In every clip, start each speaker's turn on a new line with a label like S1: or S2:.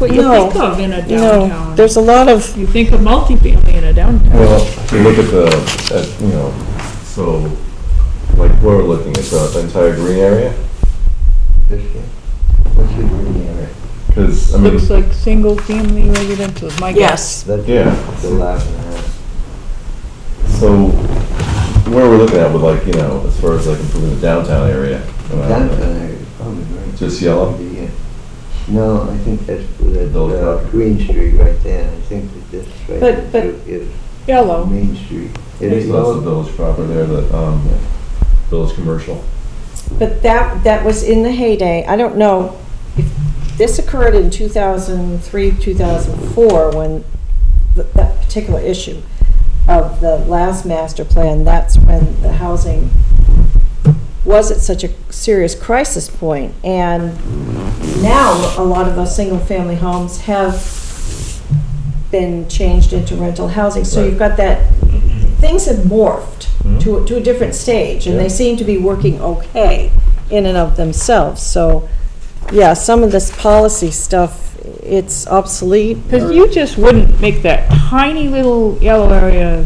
S1: what you
S2: No.
S1: think of in a
S2: No,
S1: downtown.
S2: there's a lot of,
S1: You think of multifamily in a downtown.
S3: Well, if you look at the, at, you know, so, like, we're looking at the entire green area,
S4: This here. What's the green area?
S3: because, I mean,
S5: Looks like single-family residential is my guess.
S2: yes,
S4: That's
S3: Yeah.
S4: The last and a half.
S3: so, where we're looking at with like, you know, as far as like improving the downtown area. uh,
S4: Downtown area, is probably green.
S3: Just yellow?
S4: The, uh, No, I think that's for that,
S3: Those
S4: uh,
S3: properties.
S4: Green Street right there. I think that this right
S2: But- but-
S4: here is
S2: yellow.
S4: Main Street. It is
S3: So that's the
S4: yellow.
S3: village proper there, the, um, village commercial.
S6: But that, that was in the heyday. I don't know if this occurred in 2003, 2004, when th- that particular issue of the last master plan, that's when the housing was at such a serious crisis point. And now, a lot of those single-family homes have been changed into rental housing. So you've got that, things have morphed to, a- to a different stage, and
S3: Yeah.
S6: they seem to be working okay in and of themselves. So, yeah, some of this policy stuff, it's obsolete.
S5: Because you just wouldn't make that tiny little yellow area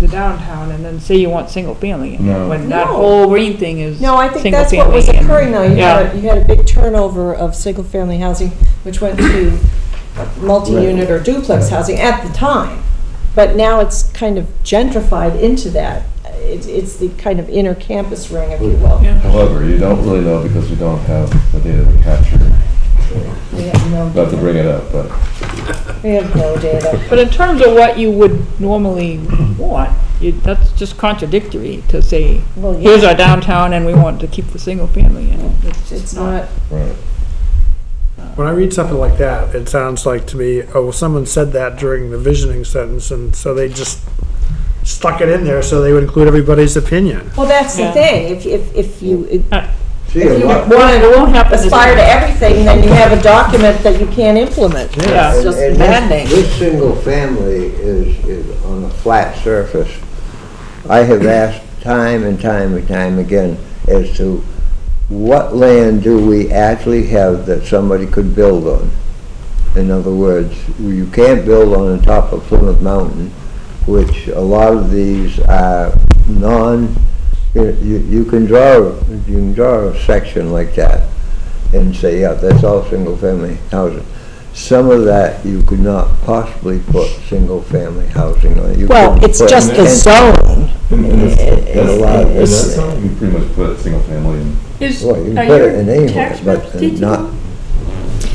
S5: the downtown and then say you want single-family. in it,
S3: No.
S5: When that
S6: No.
S5: whole green thing is
S6: No, I think that's what was
S5: single-family and-
S6: occurring though. You
S5: Yeah.
S6: had, you had a big turnover of single-family housing, which went to multi-unit or duplex housing at the time. But now it's kind of gentrified into that. It's, it's the kind of inner campus ring, if you will.
S5: Yeah.
S3: However, you don't really know because we don't have the data to capture,
S6: We have no
S3: not to
S6: data.
S3: bring it up, but.
S6: We have no data.
S5: But in terms of what you would normally want, you- that's just contradictory to say,
S6: Well, yeah.
S5: here's our downtown and we want to keep the single-family in it. It's
S6: It's
S5: just
S6: not,
S3: Right.
S7: When I read something like that, it sounds like to me, oh, well, someone said that during the visioning sentence, and so they just stuck it in there so they would include everybody's opinion.
S6: well, that's the
S5: Yeah.
S6: thing. If, if, if you
S4: See,
S6: if
S4: a
S6: you
S4: lot.
S5: Well, it won't happen.
S6: aspire to everything, then you have a document that you can't implement.
S5: Yeah.
S6: It's just
S4: And- and this-
S6: maddening.
S4: This single family is, is on a flat surface. I have asked time and time and time again as to what land do we actually have that somebody could build on? In other words, you can't build on the top of Plymouth Mountain, which a lot of these are non, you, you you can draw, you can draw a section like that and say, yeah, that's all single-family housing. Some of that you could not possibly put single-family housing on. You
S6: Well,
S4: couldn't
S6: it's
S4: put-
S6: just the
S4: and-
S6: zone.
S3: And that's,
S4: a lot of-
S3: that's, that's, you pretty much put single family in.
S5: Is,
S4: Well, you
S5: are
S4: can put it
S5: your
S4: in anywhere,
S5: tax
S4: but
S5: reps digital?
S4: not.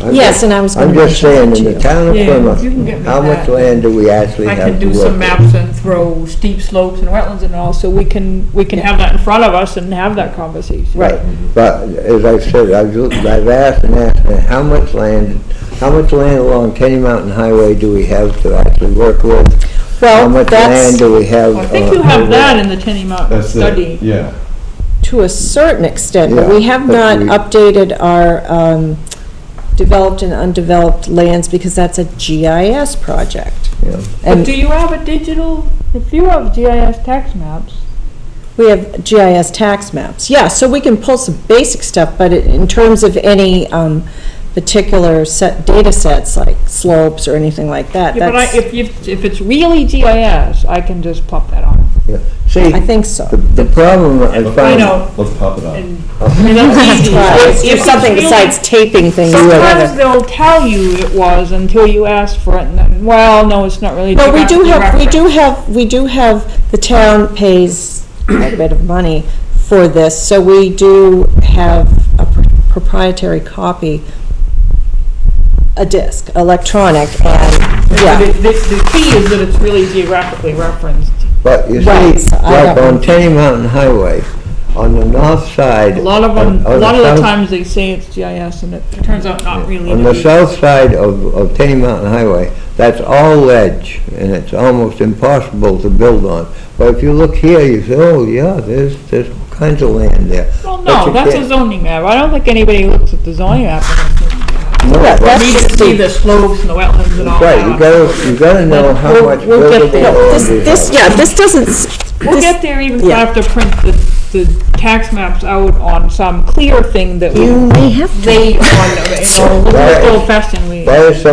S4: I'm
S6: Yes,
S4: just-
S6: and I was gonna
S4: I'm
S6: mention
S4: just saying,
S6: that
S4: in
S6: too.
S4: the town of
S5: Yeah, you can
S4: Plymouth,
S5: get me
S4: how much
S5: that.
S4: land do we actually
S5: I
S4: have
S5: can
S4: to
S5: do some
S4: work with?
S5: maps and throw steep slopes and wetlands and all, so we can, we can have that in front of us and have that conversation.
S4: Right, but as I said, I've looked- I've asked and asked, and how much land, how much land along Tenny Mountain Highway do we have to actually work with? How
S6: Well,
S4: much land
S6: that's
S4: do we have?
S5: I think
S4: on
S5: you have
S4: highway?
S5: that in the Tenny Mountain
S3: That's
S5: study.
S3: it, yeah.
S6: to a certain extent, but
S4: Yeah,
S6: we have not
S4: but we-
S6: updated our um, developed and undeveloped lands because that's a GIS project.
S4: Yeah.
S5: But
S6: And
S5: do you have a digital, if you have GIS tax maps,
S6: we have GIS tax maps. Yeah, so we can pull some basic stuff, but it- in terms of any um, particular set, data sets like slopes or anything like that,
S5: yeah, but I,
S6: that's,
S5: if, you if it's really GIS, I can just plop that on.
S4: See,
S6: I think
S4: the,
S6: so.
S4: the problem I
S5: I
S4: find.
S5: know,
S3: Let's pop it up.
S5: and, I mean, that's easy.
S6: Right,
S5: If- if
S6: do
S5: it's
S6: something
S5: really-
S6: besides taping things
S5: Sometimes
S6: together.
S5: they'll tell you it was until you ask for it, and then, well, no, it's not really.
S6: But we do
S5: directly
S6: have, we
S5: referenced."
S6: do have, we do have, the town pays a bit of money for this, so we do have a pr- proprietary copy, a disc, electronic, and,
S5: The,
S6: yeah,
S5: the, the key is that it's really geographically referenced.
S4: But you see,
S6: Right, so I
S4: like
S6: don't-
S4: on Tenny Mountain Highway, on the north side.
S5: A lot of them,
S4: on-
S5: a
S4: on
S5: lot of the
S4: south-
S5: times they say it's GIS and it turns out not really.
S4: On
S5: to
S4: the
S5: be.
S4: south side of, of Tenny Mountain Highway, that's all ledge, and it's almost impossible to build on. But if you look here, you say, oh, yeah, there's, there's all kinds of land there.
S5: Well,
S4: But
S5: no,
S4: you
S5: that's a
S4: can't-
S5: zoning map. I don't think anybody looks at the zoning map. and thinks,
S4: No,
S6: Yeah,
S4: but-
S6: that's-
S5: We need to see the slopes and the wetlands and all
S4: Right,
S5: that.
S4: you gotta, you gotta know how
S5: We'll-
S4: much
S5: we'll get
S4: buildable
S5: there.
S4: land
S6: no,
S4: is.
S6: this, this, yeah, this doesn't, s-
S5: We'll
S6: this-
S5: get there even if I
S6: yeah.
S5: have to print the the tax maps out on some clear thing that we
S2: You may have to.
S5: laid on, you know,
S4: Right.
S5: old fashioned we.
S4: That is something